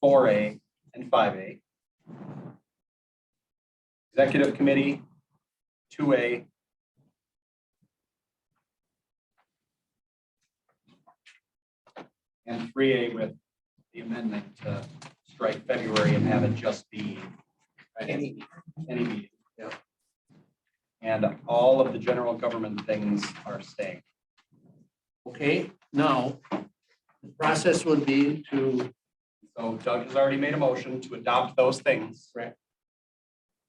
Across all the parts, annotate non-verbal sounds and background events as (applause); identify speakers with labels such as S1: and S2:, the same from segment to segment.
S1: four A, and five A. Executive Committee, two A. And three A with the amendment to strike February and have it just be. Any. Any meeting. Yeah. And all of the general government things are staying.
S2: Okay, now, the process would be to,
S1: So Doug has already made a motion to adopt those things.
S2: Right.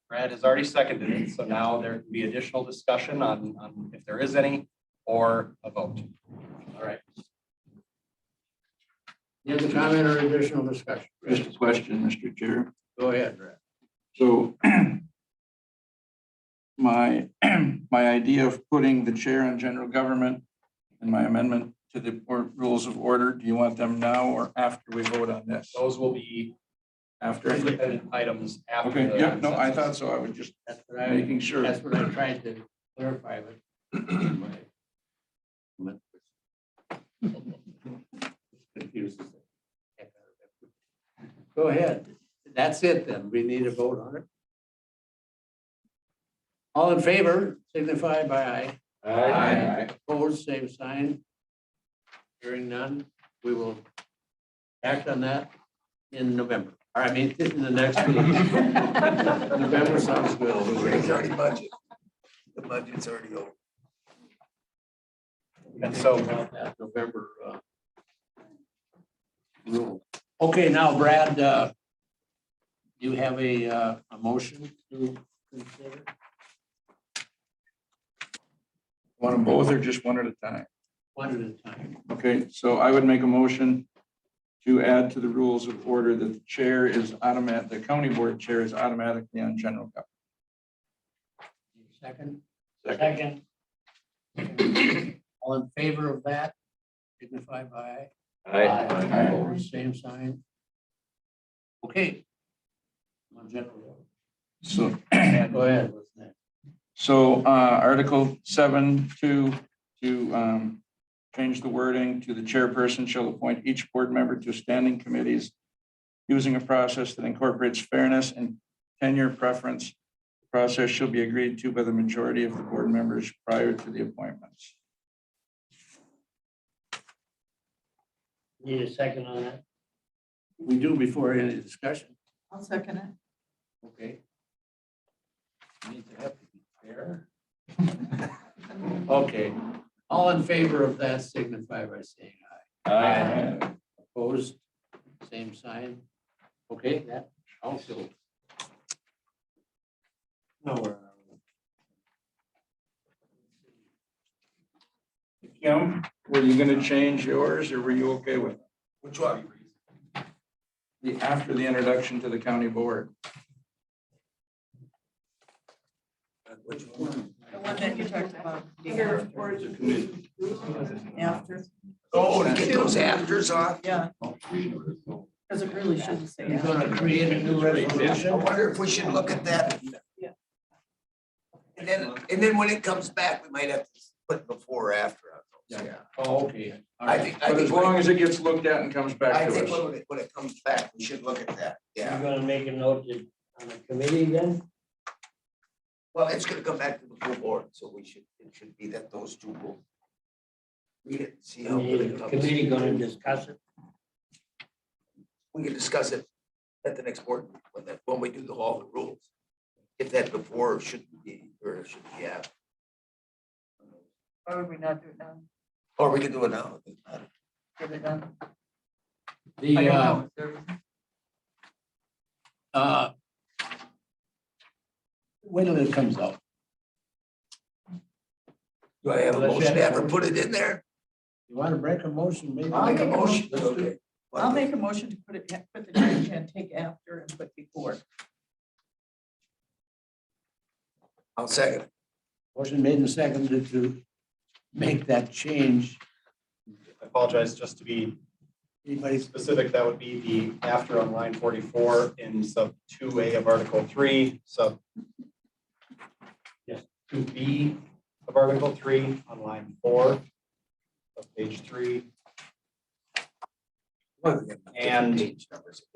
S1: Brad has already seconded it, so now there can be additional discussion on, on if there is any, or a vote.
S2: all right. Any other comment or additional discussion?
S3: Just a question, Mr. Chair.
S2: Go ahead, Brad.
S3: So (clears throat) my, (clears throat) my idea of putting the chair on general government and my amendment to the or- rules of order, do you want them now or after we vote on this?
S1: Those will be
S3: After?
S1: independent items after.
S3: Okay,
S1: the
S3: yeah, no, I thought
S1: consensus.
S3: so. I was just
S2: That's what I,
S3: making sure.
S2: that's what I tried to clarify with. my- Go ahead. That's it then. We need a vote on it. All in favor, signify by aye.
S3: Aye.
S2: Opposed, same sign. Hearing none, we will act on that in November. Or I mean, in the next meeting. November sounds
S4: It's
S2: good.
S4: already budget. The budget's already over.
S1: And so,
S2: About that November. uh, Rule. Okay, now Brad, uh, you have a, uh, a motion to consider?
S3: Want them both or just one at a time?
S2: One at a time.
S3: Okay, so I would make a motion to add to the rules of order that the chair is automatic, the county board chair is automatically on general government.
S2: Second?
S3: Second.
S2: Second. All in favor of that, signify by.
S3: Aye.
S2: Opposed, Same sign. Okay. (clears throat) On general,
S3: So
S1: and
S2: go ahead. what's next?
S3: So uh, Article seven, two, to um, change the wording to the chairperson shall appoint each board member to standing committees using a process that incorporates fairness and tenure preference. The Process shall be agreed to by the majority of the board members prior to the appointments.
S2: Need a second on that? We do before any discussion.
S5: I'll second it.
S2: Okay.
S3: (laughs)
S2: Okay, all in favor of that signify by saying aye. Aye. Opposed, same sign. Okay, that also. No, we're.
S3: Kim, were you going to change yours or were you okay with it?
S4: Which one?
S3: the after the introduction to the county board?
S4: Which one?
S5: The one that you talked about. After,
S4: Oh, to get those afters off.
S5: yeah. Because it really shouldn't say
S2: You're
S5: after.
S2: gonna create a new
S4: I
S2: resolution?
S4: wonder if we should look at that.
S5: Yeah.
S4: And then, and then when it comes back, we might have to put before or after. on those.
S2: Oh, okay. all
S4: I
S2: right.
S4: think, I
S3: But as
S4: think,
S3: long
S4: when-
S3: as it gets looked at and comes back
S4: I
S3: to
S4: think
S3: us.
S4: when it, when it comes back, we should look at that.
S6: You're
S4: Yeah.
S6: gonna make a note that on the committee then?
S4: Well, it's gonna come back to the full board, so we should, it should be that those two will. Read it, see how good it
S6: The
S4: comes.
S6: Committee gonna discuss it?
S4: we can discuss it at the next board, when that, when we do the, all the rules. If that before or should be, or should be, yeah,
S5: Why would we not do it now?
S4: or we can do it now.
S5: Get it done? I
S2: The,
S5: don't
S2: uh,
S5: know. Is there-
S2: uh. Wait till it comes out.
S4: Do I have a
S2: Unless you
S4: motion to
S2: have-
S4: ever put it in there?
S2: You wanna break a motion, maybe?
S5: I'll
S4: Make a
S5: make a
S4: motion.
S2: motion.
S4: Okay.
S5: I'll make a motion to put it, put the change and take after and put before.
S4: I'll second.
S2: Motion made and seconded to make that change.
S1: I apologize, just to be
S2: Anybody's
S1: specific, that would be the after on line forty-four in sub two A of Article three, sub yes, two B of Article three on line four of page three.
S4: Well, we have different
S1: And-
S4: page numbers again.